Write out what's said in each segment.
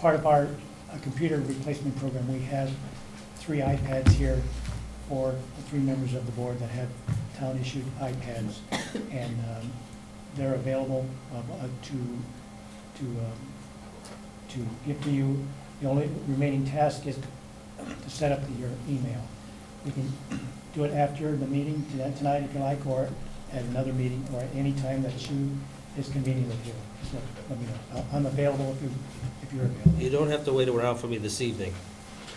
part of our uh, computer replacement program, we have three iPads here for the three members of the board that have town-issued iPads. And um, they're available um, uh, to, to, um, to give to you. The only remaining task is to set up your email. We can do it after the meeting tonight- tonight if you like, or at another meeting, or at any time that you is convenient with you. Just let let me know. I- I'm available if you, if you're available. You don't have to wait around for me this evening.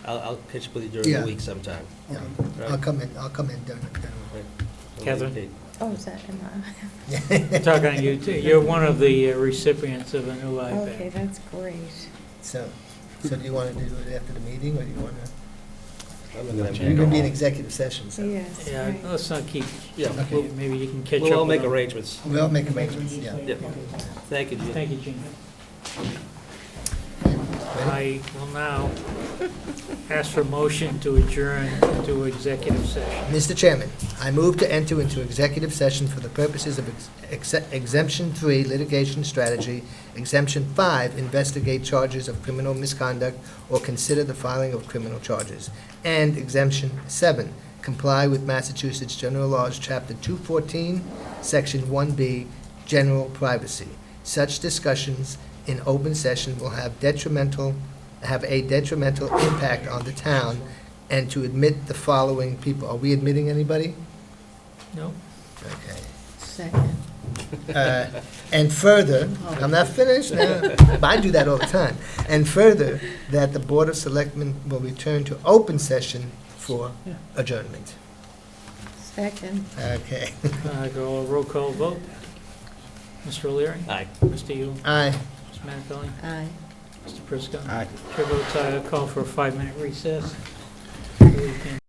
I'll, I'll pitch with you during Yeah. the week sometime. Yeah, Right. I'll come in, I'll come in during, the- during. Right. Catherine? Oh, is that Emma? I'm talking to you, too. You're one of the uh, recipients of a new Okay, iPad. that's great. So, so do you want to do it after the meeting, or do you want to? I'm not gonna You're going to be in have- executive session, so Yes, Yeah, right. let's not keep, Yeah, Okay. maybe you can catch up. we'll all with make them. arrangements. we'll make arrangements, yeah. Yeah. Thank you, Jim. Thank you, Gene. Ready? I will now ask for motion to adjourn to executive session. Mr. Chairman, I move to enter into executive session for the purposes of ex- exe- exemption three litigation strategy, exemption five investigate charges of criminal misconduct or consider the filing of criminal charges, and exemption seven comply with Massachusetts General Laws, Chapter 214, Section 1B, general privacy. Such discussions in open session will have detrimental, have a detrimental impact on the town, and to admit the following people. Are we admitting anybody? No? Okay. Second. Uh, And further, I'm not finished now, but I do that all the time. And further, that the Board of Selectmen will return to open session for adjournment. Second. Okay. Uh, Go a roll call vote. Mr. O'Leary? Aye. Mr. Yule? Aye. Mr. Minipelli? Aye. Mr. Prisco? Aye. Chair votes aye. I'll call for a five-minute recess. We can-